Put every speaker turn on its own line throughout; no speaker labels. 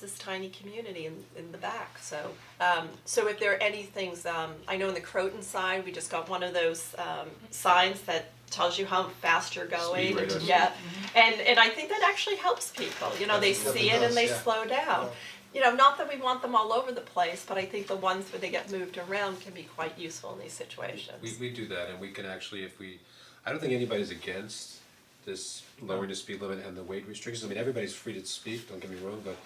this tiny community in, in the back, so. Um, so if there are any things, um, I know in the Croton side, we just got one of those, um, signs that tells you how fast you're going.
Speed radars.
Yeah, and, and I think that actually helps people, you know, they
Absolutely
see it and
does,
they
yeah.
slow down.
Yeah.
You know, not that we want them all over the place, but I think the ones where they get moved around can be quite useful in these situations.
We we do that and we can actually, if we, I don't think anybody's against this lowering the speed limit and the weight restrictions, I mean, everybody's free to speak, don't get me wrong, but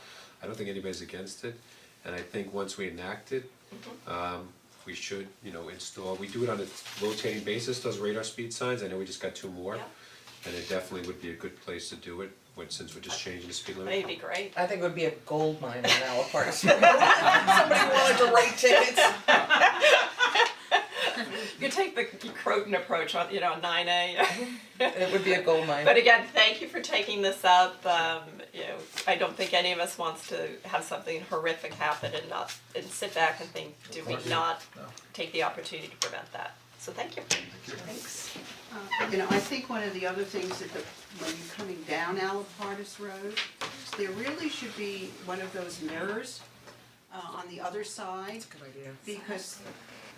I don't think anybody's against it. And I think once we enact it,
Mm-hmm.
um, we should, you know, install, we do it on a rotating basis, those radar speed signs, I know we just got two more.
Yeah.
And it definitely would be a good place to do it, when since we're just changing the speed limit.
That'd be great.
I think it would be a gold mine in Alapark. Somebody wanted to write tickets.
You take the Croton approach on, you know, nine A.
It would be a gold mine.
But again, thank you for taking this up. Um, you know, I don't think any of us wants to have something horrific happen and not, and sit back and think, do we not take the opportunity to prevent that? So thank you. Thanks.
Uh, You know, I think one of the other things that the, when you're coming down Alapartis Road, there really should be one of those mirrors uh on the other side.
Good idea.
Because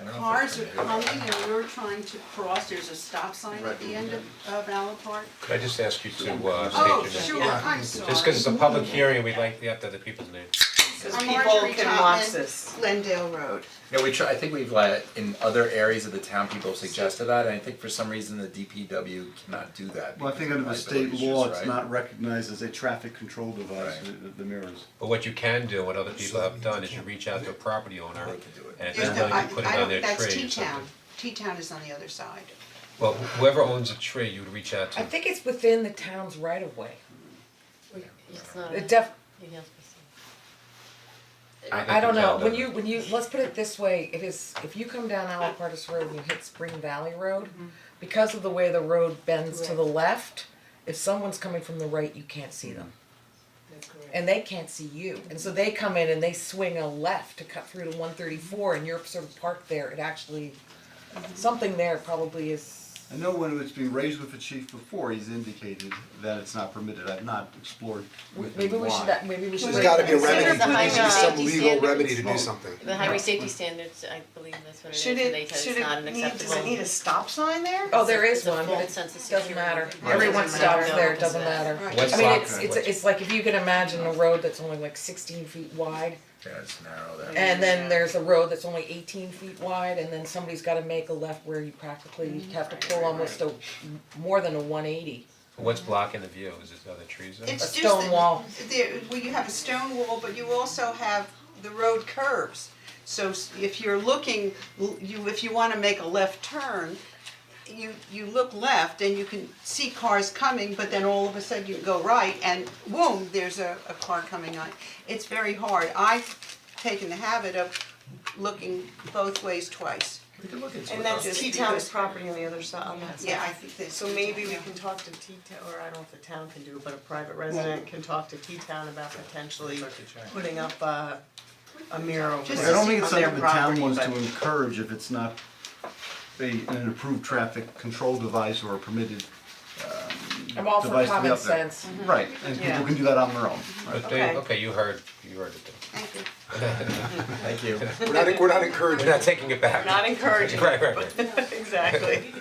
And I don't
cars are
think-
coming and we're trying to cross, there's a stop sign at the end of of Alapart.
Could I just ask you to uh state your
Oh,
name?
sure, I'm sorry.
Just cause it's a public hearing, we'd like, we have to have the people's names.
Because
I'm
people
Marjorie
can watch
Chapman,
this.
Glendale Road.
No, we try, I think we've let, in other areas of the town, people have suggested that, and I think for some reason the DPW cannot do that.
Well, I think
because
under the
of
state
liability
law,
issues,
it's
right?
not recognized as a traffic control device, the, the mirrors.
But what you can do, what other people have done, is you reach out to a property owner,
They can do it.
and if
There's
they're
the-
willing, you put it
I- I
on
don't-
their tree or
that's
something.
T-Town, T-Town is on the other side.
Well, wh- whoever owns a tree, you would reach out
I
to,
think it's within the town's right of way.
It's
Uh,
not,
It def,
you can't be
think
I, I don't
the
know,
town
when
does.
you, when you, let's put it this way, it is, if you come down Alapartis Road and you hit Spring Valley Road, because of the way the road bends to the left, if someone's coming from the right, you can't see them. And they can't see you, and so they come in and they swing a left to cut through to one thirty-four and you're sort of parked there, it actually, something there probably is,
I know when it's been raised with the chief before, he's indicated that it's not permitted, I've not explored with him
maybe we should,
why.
maybe we should.
There's gotta be a
Consider
remedy,
the
there needs to be
high
some
safety
legal
standards.
remedy to do something.
The highway safety standards, I believe that's what it is,
Should
and they
it,
said
should
it's not
it
an
need, does
acceptable.
it need a stop sign there?
Oh, there is
It's a
one, but
full
it
sense of
doesn't
security.
matter,
Right.
everyone
Doesn't
stops
matter.
there, it doesn't matter.
What's
I mean,
lock
it's
code?
it's it's like if you could imagine a road that's only like sixteen feet wide,
Yeah, it's narrow there.
and then there's a road that's only eighteen feet wide, and then somebody's gotta make a left where you practically have to pull almost a, more than a one eighty.
what's blocking the view, is it other trees there?
A
It's
stone
just that
wall.
there- well, you have a stone wall, but you also have the road curves. So s- if you're looking, l- you, if you wanna make a left turn, you, you look left and you can see cars coming, but then all of a sudden you go right and boom, there's a, a car coming on. It's very hard. I've taken the habit of looking both ways twice.
We could look into it.
And that's
Just
T-Town's
because-
property on the other side, on that side.
Yeah, I think that's.
So maybe we can talk to T-Town, or I don't know if the town can do it, but a private resident can talk to T-Town about potentially putting up a, a mirror over
Just
I
there
don't
on
think it's
their
something the town
property,
wants
but-
to encourage if it's not a, an approved traffic control device or a permitted
I'm all for
device to be
common
up there.
sense.
Right, and people can do that on their own, right?
But they,
Okay.
okay, you heard, you heard it then.
Thank you.
Thank you.
We're not, we're not encouraging.
We're not taking it back.
We're not encouraging,
Right, right, right.
exactly.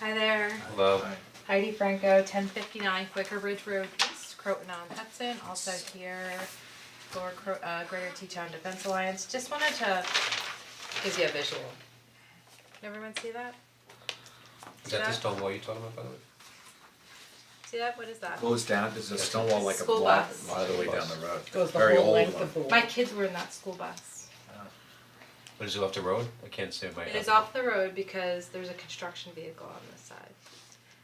Hi there,
Love,
Heidi Franco, ten fifty nine Quaker Ridge Road East, Croton on Hudson, also here for Cro- uh Greater Teton Defense Alliance, just wanted to give you a visual. Can everyone see that?
is that the stone wall you're talking about, by the way?
See that, what is that?
Goes down, there's a stone wall like a
School
block,
bus.
a lot of the way down the road,
Goes the
very
whole
old
length
one.
of the
My
wall.
kids were in that school bus.
But is it off the road? I can't say my.
It is off the road because there's a construction vehicle on this side.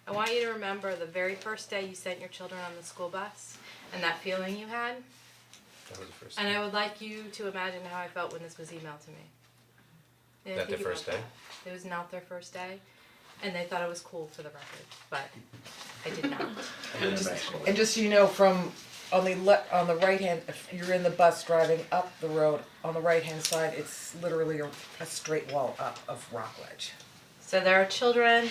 I want you to remember the very first day you sent your children on the school bus and that feeling you had.
That was the first.
And I would like you to imagine how I felt when this was emailed to me.
That
Yeah,
their
think about
first day?
that. It was not their first day, and they thought it was cool for the record, but I did not.
And then eventually-
And just so you know, from on the le- on the right hand, if you're in the bus driving up the road, on the right hand side, it's literally a a straight wall up of rock ledge.
So there are children